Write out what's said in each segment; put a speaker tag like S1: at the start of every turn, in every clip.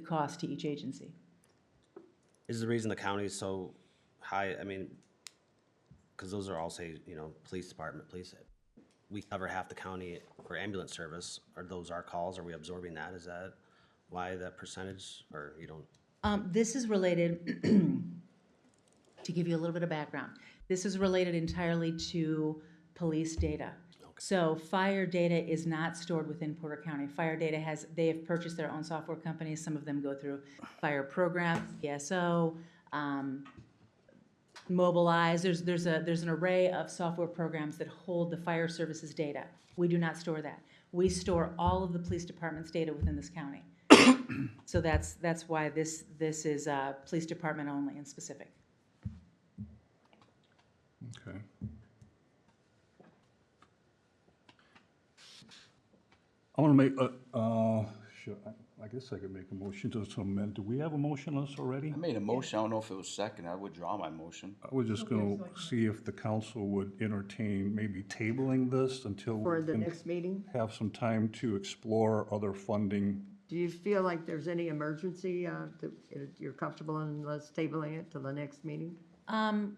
S1: cost to each agency.
S2: Is the reason the county is so high, I mean, because those are all say, you know, police department, police, we cover half the county for ambulance service. Are those our calls? Are we absorbing that? Is that why that percentage or you don't?
S1: Um, this is related, to give you a little bit of background, this is related entirely to police data. So fire data is not stored within Porter County. Fire data has, they have purchased their own software companies. Some of them go through fire program, ESO, um, Mobilize, there's, there's a, there's an array of software programs that hold the fire services data. We do not store that. We store all of the police department's data within this county. So that's, that's why this, this is, uh, police department only and specific.
S3: Okay. I want to make, a- uh, sure, I- I guess I could make a motion to amend. Do we have a motion on this already?
S4: I made a motion, I don't know if it was second, I withdraw my motion.
S3: I was just going to see if the council would entertain maybe tabling this until. we
S5: For the
S3: can
S5: next meeting?
S3: Have some time to explore other funding.
S5: Do you feel like there's any emergency, uh, that you're comfortable in us tabling it till the next meeting?
S1: Um,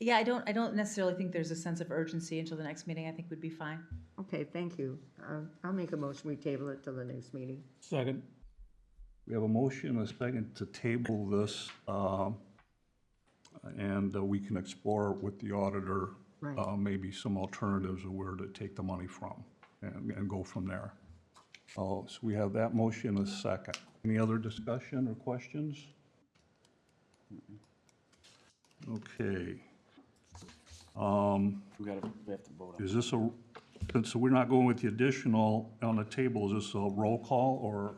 S1: yeah, I don't, I don't necessarily think there's a sense of urgency until the next meeting. I think we'd be fine.
S5: Okay, thank you. Uh, I'll make a motion, we table it till the next meeting.
S3: Second. We have a motion, and a second to table this, uh, and uh, we can explore with the auditor,
S5: Right.
S3: uh, maybe some alternatives of where to take the money from and, and go from there. Oh, so we have that motion, and a second. Any other discussion or questions? Okay.
S4: We gotta, we have to vote on it.
S3: Is this a, since we're not going with the additional on the table, is this a roll call or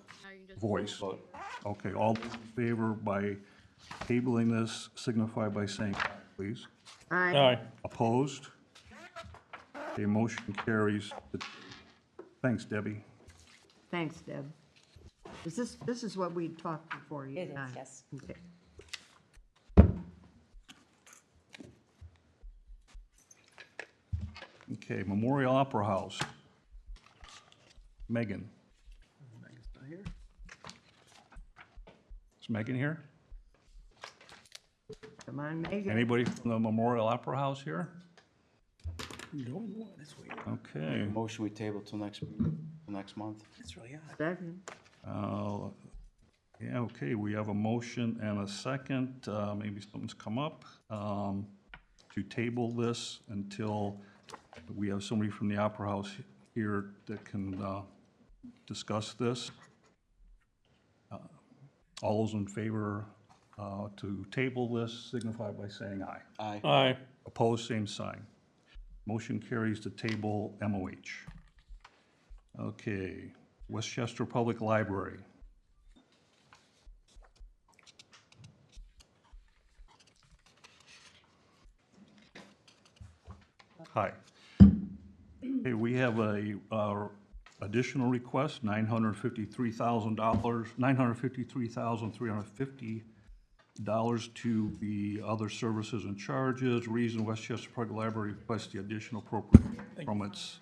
S3: voice?
S4: Vote.
S3: Okay, all those in favor by tabling this signify by saying aye, please.
S5: Aye.
S3: Opposed? The motion carries. Thanks, Debbie.
S5: Thanks, Deb. Is this, this is what we talked before? you
S1: It
S5: and
S1: is,
S5: I?
S1: yes.
S5: Okay.
S3: Okay, Memorial Opera House. Megan. Is Megan here?
S5: Come on, Megan.
S3: Anybody from the Memorial Opera House here? Okay,
S4: Motion we table till next, till next month.
S5: Second.
S3: uh, yeah, okay, we have a motion and a second, uh, maybe something's come up, um, to table this until we have somebody from the Opera House here that can, uh, discuss this. Uh, All those in favor, uh, to table this signify by saying aye.
S4: Aye.
S6: Aye.
S3: Opposed, same sign. Motion carries to table MOH. Okay, Westchester Public Library. Hi. Hey, we have a uh, additional request, nine hundred fifty-three thousand dollars, nine hundred fifty-three thousand, three hundred fifty dollars to the other services and charges. Reason Westchester Public Library requests the additional appropriate from its,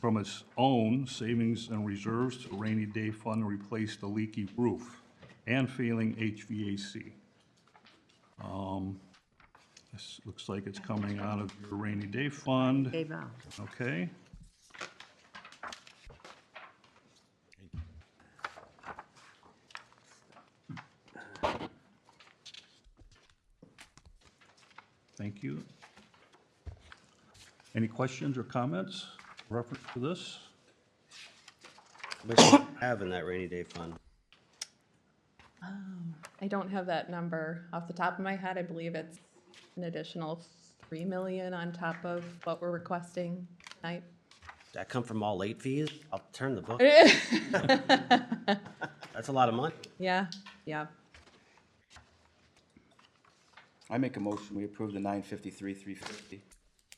S3: from its own savings and reserves to rainy day fund to replace the leaky roof and failing HVAC. Um, This looks like it's coming out of your rainy day fund,
S5: Dave Al.
S3: okay? Thank you. Any questions or comments reference to this?
S2: Which we have in that rainy day fund?
S7: I don't have that number off the top of my head. I believe it's an additional three million on top of what we're requesting tonight.
S2: Does that come from all late fees? I'll turn the book. That's a lot of money.
S7: Yeah, yeah.
S4: I make a motion, we approve the nine fifty-three, three fifty.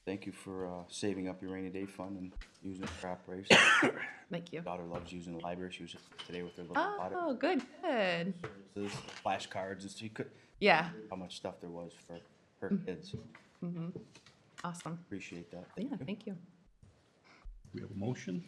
S4: Thank you for, uh, saving up your rainy day fund and using it for operations.
S7: Thank you.
S4: Daughter loves using the library, she was today with her little audit,
S7: Oh, good, good.
S4: services, flashcards, and she could,
S7: Yeah,
S4: how much stuff there was for her kids.
S7: awesome.
S4: Appreciate that.
S7: Yeah, thank you.
S3: We have a motion?